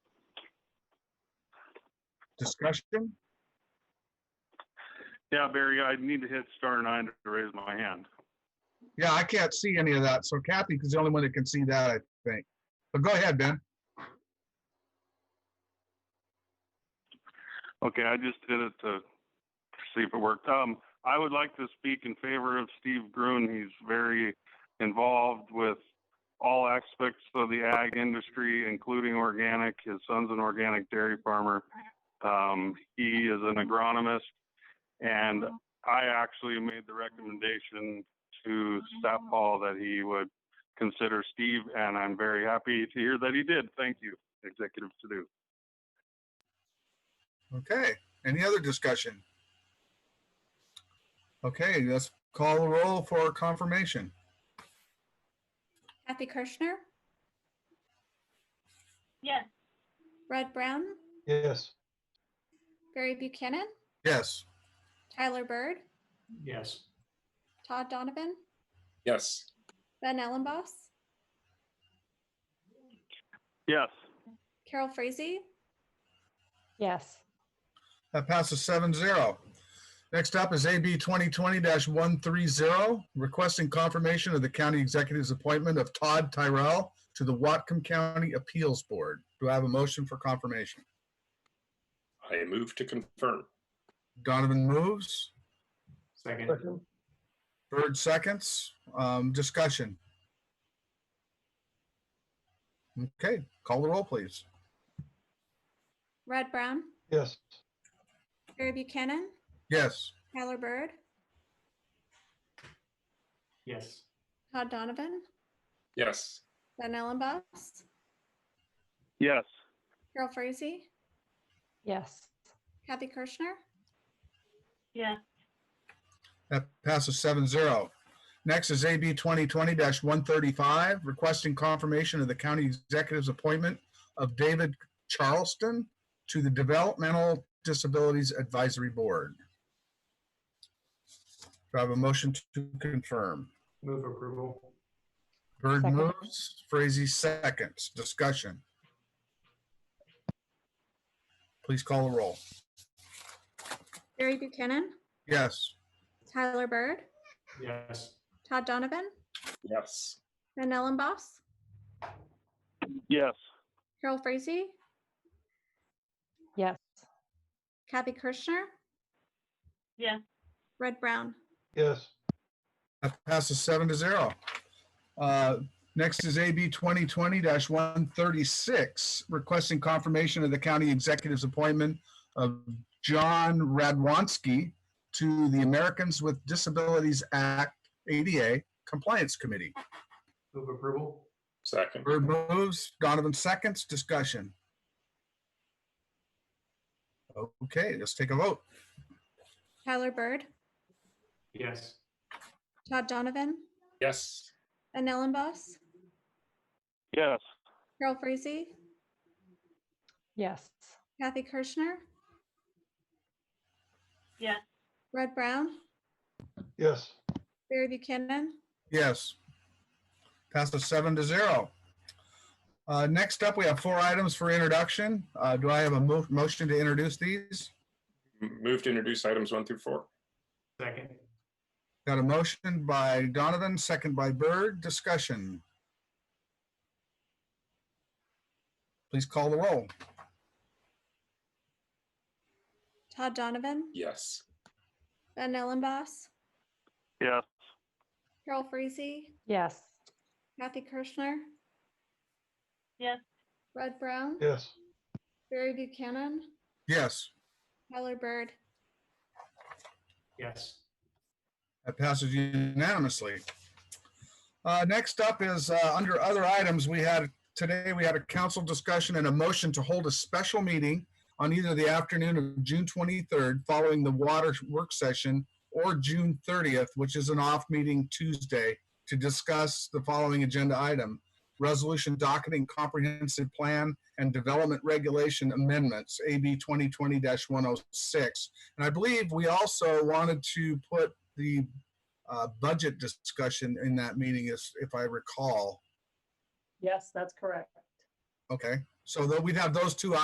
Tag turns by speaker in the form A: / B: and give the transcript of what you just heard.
A: Discussion?
B: Yeah, Barry, I need to hit star nine to raise my hand.
A: Yeah, I can't see any of that. So Kathy is the only one that can see that, I think. But go ahead, Ben.
B: Okay, I just did it to see if it worked. Um, I would like to speak in favor of Steve Gruen. He's very involved with all aspects of the ag industry, including organic. His son's an organic dairy farmer. Um, he is an agronomist, and I actually made the recommendation to Staff Hall that he would consider Steve, and I'm very happy to hear that he did. Thank you, Executive Sadu.
A: Okay, any other discussion? Okay, let's call the roll for confirmation.
C: Kathy Kirschner,
D: Yes.
C: Red Brown,
E: Yes.
C: Barry Buchanan,
A: Yes,
C: Tyler Bird,
E: Yes.
C: Todd Donovan,
F: Yes.
C: Ben Ellenboss,
B: Yes.
C: Carol Frazee,
D: Yes.
A: that passes seven zero. Next up is AB 2020-130, requesting confirmation of the county executive's appointment of Todd Tyrell to the Watcom County Appeals Board. Do I have a motion for confirmation?
F: I move to confirm.
A: Donovan moves,
E: Second.
A: Bird seconds, Um, discussion. Okay, call the roll, please.
C: Red Brown,
E: Yes.
C: Barry Buchanan,
A: Yes,
C: Tyler Bird,
E: Yes.
C: Todd Donovan,
F: Yes.
C: Ben Ellenboss,
B: Yes.
C: Carol Frazee,
D: Yes.
C: Kathy Kirschner,
D: Yes.
A: that passes seven zero. Next is AB 2020-135, requesting confirmation of the county executive's appointment of David Charleston to the Developmental Disabilities Advisory Board. Do I have a motion to confirm?
E: Move approval.
A: Bird
D: Second.
A: moves, Frazee seconds. Discussion. Please call the roll.
C: Barry Buchanan,
A: Yes,
C: Tyler Bird,
E: Yes.
C: Todd Donovan,
F: Yes.
C: Ben Ellenboss,
B: Yes.
C: Carol Frazee,
D: Yes.
C: Kathy Kirschner,
D: Yes.
C: Red Brown,
E: Yes.
A: that passes seven to zero. Uh, Next is AB 2020-136, requesting confirmation of the county executive's appointment of John Radwanski to the Americans with Disabilities Act ADA Compliance Committee.
E: Move approval.
F: Second.
A: Bird moves, Donovan seconds, discussion. Okay, let's take a vote.
C: Tyler Bird,
E: Yes.
C: Todd Donovan,
F: Yes.
C: Ben Ellenboss,
B: Yes.
C: Carol Frazee,
D: Yes.
C: Kathy Kirschner.
D: Yes.
C: Red Brown,
E: Yes.
C: Barry Buchanan,
A: Yes. Passes seven to zero. Uh, Next up, we have four items for introduction. Uh, Do I have a mo- motion to introduce these?
F: Move to introduce items one through four.
E: Second.
A: Got a motion by Donovan, second by Bird. Discussion. Please call the roll.
C: Todd Donovan,
F: Yes.
C: Ben Ellenboss,
B: Yes.
C: Carol Frazee,
D: Yes.
C: Kathy Kirschner.
D: Yes.
C: Red Brown,
E: Yes.
C: Barry Buchanan,
A: Yes,
C: Tyler Bird.
E: Yes.
A: that passes unanimously. Uh, Next up is, uh, under other items, we had, today, we had a council discussion and a motion to hold a special meeting on either the afternoon of June 23rd, following the water work session, or June 30th, which is an off meeting Tuesday, to discuss the following agenda item. Resolution docketing comprehensive plan and development regulation amendments, AB 2020-106. And I believe we also wanted to put the uh, budget discussion in that meeting, is- if I recall.
G: Yes, that's correct.
A: Okay, so that we'd have those two